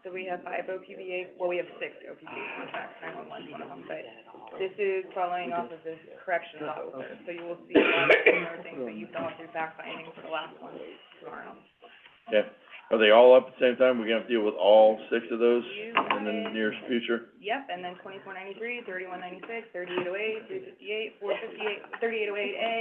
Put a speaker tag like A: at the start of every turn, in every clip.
A: So we have five OPBA, well, we have six OPBA contracts, nine-one-one's one of them, but this is following off of this correction law open. So you will see a lot of similar things that you've gone through fact finding for the last one tomorrow.
B: Yeah, are they all up at the same time? We're gonna have to deal with all six of those
A: You
B: in the
A: wanted,
B: nearest future?
A: yep, and then twenty-four ninety-three, thirty-one ninety-six, thirty-eight oh eight, three fifty-eight, four fifty-eight, thirty-eight oh eight A,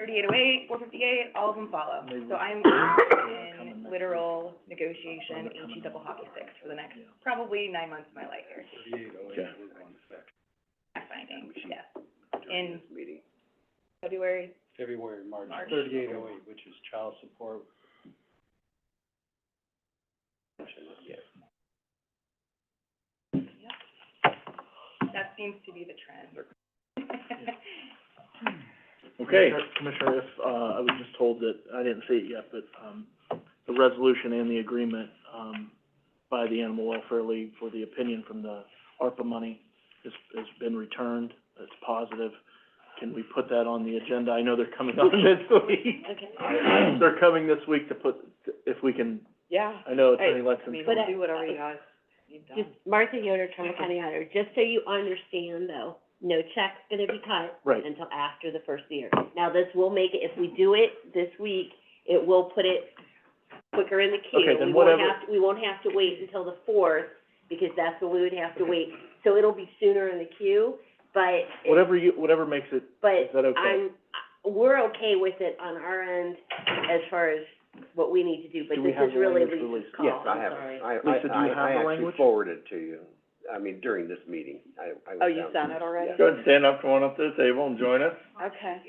A: thirty-eight oh eight, four fifty-eight, all of them follow. So I'm in literal negotiation, HE double hockey sticks for the next, probably nine months of my life here.
C: oh
B: Okay.
A: fact finding, yes, in February,
C: February, March,
A: March.
C: thirty-eight oh eight, which is child support. Yeah.
A: that seems to be the trend.
B: Okay,
D: Commissioner, if, uh, I was just told that, I didn't see it yet, but, um, the resolution and the agreement, um, by the Animal Welfare League for the opinion from the ARPA money has, has been returned, it's positive. Can we put that on the agenda? I know they're coming on this week. They're coming this week to put, if we can,
E: Yeah,
D: I know Attorney Lexon's.
E: But I- do
A: whatever
E: you
A: guys
E: just Martha Yoder, Trumbull County Auditor, just so you understand though, no check's gonna be cut
D: Right.
E: until after the first year. Now, this will make it, if we do it this week, it will put it quicker in the queue.
D: Okay, then
E: We won't
D: whatever-
E: have- We won't have to wait until the fourth, because that's when we would have to wait. So it'll be sooner in the queue, but,
D: Whatever you, whatever makes it,
E: but
D: is that okay?
E: I'm, I- we're okay with it on our end as far as what we need to do, but
D: Do we
E: this
D: have
E: is
D: the
E: really
D: language
E: Lisa's
D: for
E: call,
D: Lisa?
F: Yes,
E: Oh,
F: I
E: I'm
F: have it.
E: sorry.
F: I,
D: Lisa, do
F: I,
D: you have the
F: I, I actually
D: language?
F: forwarded it to you, I mean, during this meeting, I, I was
E: Oh, you
F: down
E: sent
F: there.
E: it already?
F: Yeah.
B: go ahead, stand up, come on up to the table and join us.
E: Okay.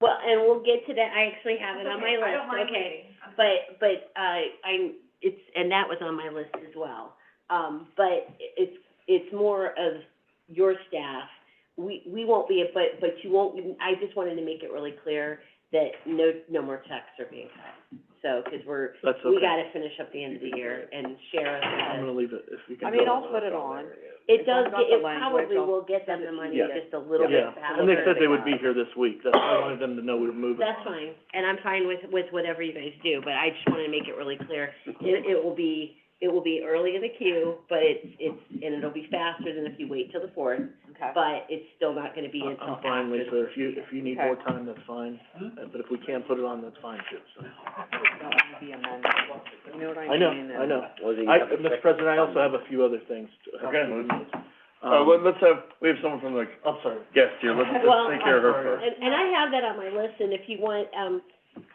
E: Well, and we'll get to that, I actually have it on my
A: I don't mind
E: list, okay.
A: waiting.
E: But, but, uh, I'm, it's, and that was on my list as well. Um, but it's, it's more of your staff. We, we won't be, but, but you won't, I just wanted to make it really clear that no, no more checks are being cut. So, 'cause we're,
D: that's okay.
E: we gotta finish up the end of the year and share
D: I'm
E: us,
D: gonna leave it, if you can.
G: I mean,
D: go.
G: I'll put it on.
E: it
G: If I've
E: does,
G: got
E: get-
G: the
E: it
G: language,
E: probably
G: I'll
E: will get them the money
D: Yeah.
E: just a little bit
D: Yeah,
E: faster.
D: and they said they would be here this week, that's why I wanted them to know we were moving on.
E: That's fine, and I'm fine with, with whatever you guys do, but I just wanna make it really clear, it, it will be, it will be early in the queue, but it's, it's, and it'll be faster than if you wait till the fourth,
G: Okay.
E: but it's still not gonna be
D: I'm-
E: until
D: I'm fine,
E: after
D: Lisa,
E: the
D: if you, if you need
G: Okay.
D: more time, that's fine, Uh, but if we can't put it on, that's fine too, so.
G: That would be amended. You know what I mean?
D: I know,
G: And-
D: I know.
F: Well, then you
D: I,
F: have a
D: Mr.
F: second
D: President, I also
F: Sunday.
D: have a few other things to.
B: Okay. Uh,
D: Um,
B: let, let's have, we have someone from the
D: I'm sorry,
B: guests here, let's,
E: Well,
B: let's take care of her
D: I'm
B: first.
E: And, and I have that on my list, and if you want, um,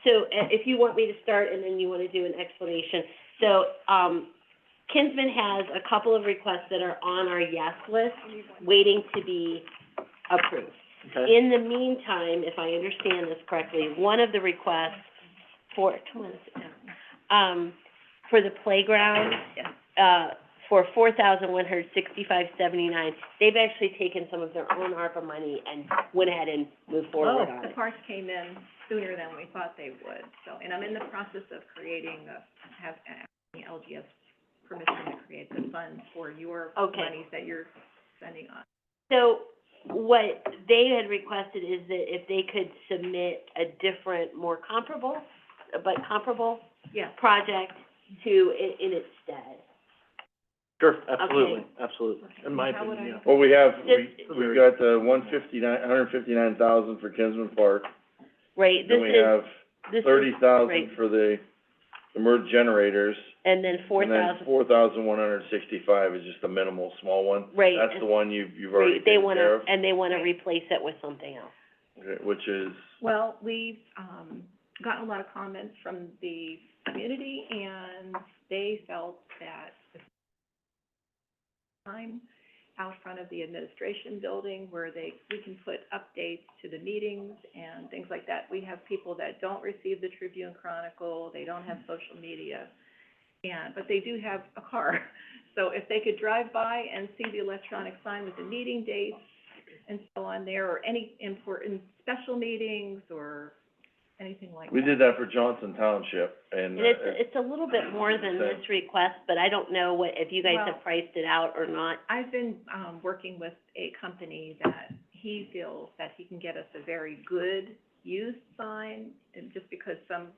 E: so, uh, if you want me to start and then you wanna do an explanation. So, um, Kinsman has a couple of requests that are on our yes list, waiting to be approved.
D: okay,
E: In the meantime, if I understand this correctly, one of the requests for, come on, sit down, um, for the playground, uh, for four thousand one hundred sixty-five seventy-nine, they've actually taken some of their own ARPA money and went ahead and moved forward on
A: The
E: it.
A: parts came in sooner than we thought they would, so, and I'm in the process of creating a, have, asking LGS permission to create the fund for your
E: Okay.
A: monies that you're spending on.
E: So what they had requested is that if they could submit a different, more comparable, but comparable
A: Yeah,
E: project to, in, in its stead.
D: sure, absolutely, absolutely, in my
A: How would
D: opinion,
B: Well, we have, we,
E: This-
B: we've got, uh, one fifty-nine, hundred fifty-nine thousand for Kinsman Park,
E: Right, this
B: then we
E: is,
B: have
E: this is.
B: thirty
E: right.
B: thousand for the, the merge generators,
E: And then four
B: and then
E: thousand,
B: four thousand one hundred sixty-five is just a minimal, small one.
E: right,
B: That's
E: and-
B: the one you've, you've already
E: right, they
B: taken care of,
E: wanna, and they wanna
A: Right.
E: replace it with something else.
B: okay, which is,
A: Well, we've, um, gotten a lot of comments from the community, and they felt that the time out front of the administration building where they, we can put updates to the meetings and things like that. We have people that don't receive the Tribune Chronicle, they don't have social media, and, but they do have a car. So if they could drive by and see the electronic sign with the meeting dates and so on there, or any important special meetings or anything like that.
B: we did that for Johnson Township, and,
E: And it's,
B: uh,
E: it's a little bit more than
B: Okay.
E: this request, but I don't know what, if you guys
A: Well-
E: have priced it out or not.
A: I've been, um, working with a company that he feels that he can get us a very good used sign, and just because some